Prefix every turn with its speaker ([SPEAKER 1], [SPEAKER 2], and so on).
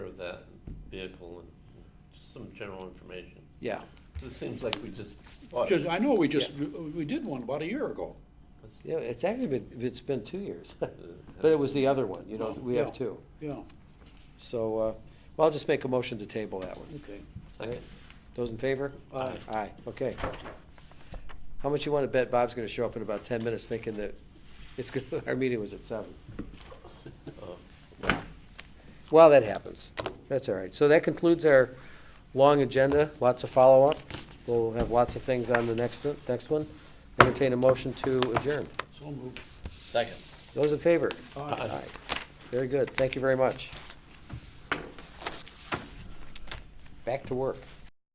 [SPEAKER 1] that vehicle and just some general information.
[SPEAKER 2] Yeah.
[SPEAKER 1] It seems like we just bought
[SPEAKER 3] Just-
[SPEAKER 1] it.
[SPEAKER 3] I know we just, we did one about a year ago.
[SPEAKER 1] That's-
[SPEAKER 2] Yeah, it's actually been, it's been two years, but
[SPEAKER 1] uh,
[SPEAKER 2] it was the other one, you know, we have
[SPEAKER 3] Yeah.
[SPEAKER 2] two.
[SPEAKER 3] Yeah,
[SPEAKER 2] So, uh, well, I'll just make a motion to table that one.
[SPEAKER 3] okay.
[SPEAKER 1] Second,
[SPEAKER 2] Those in favor?
[SPEAKER 3] Aye.
[SPEAKER 2] Aye, okay. How much you wanna bet Bob's gonna show up in about ten minutes thinking that it's good, our meeting was at seven?
[SPEAKER 1] uh,
[SPEAKER 2] Well, that happens. That's all right. So that concludes our long agenda, lots of follow-up. We'll have lots of things on the next, next one. Entertain a motion to adjourn.
[SPEAKER 3] So moved.
[SPEAKER 1] second.
[SPEAKER 2] Those in favor?
[SPEAKER 3] Aye.
[SPEAKER 2] Very good. Thank you very much. Back to work.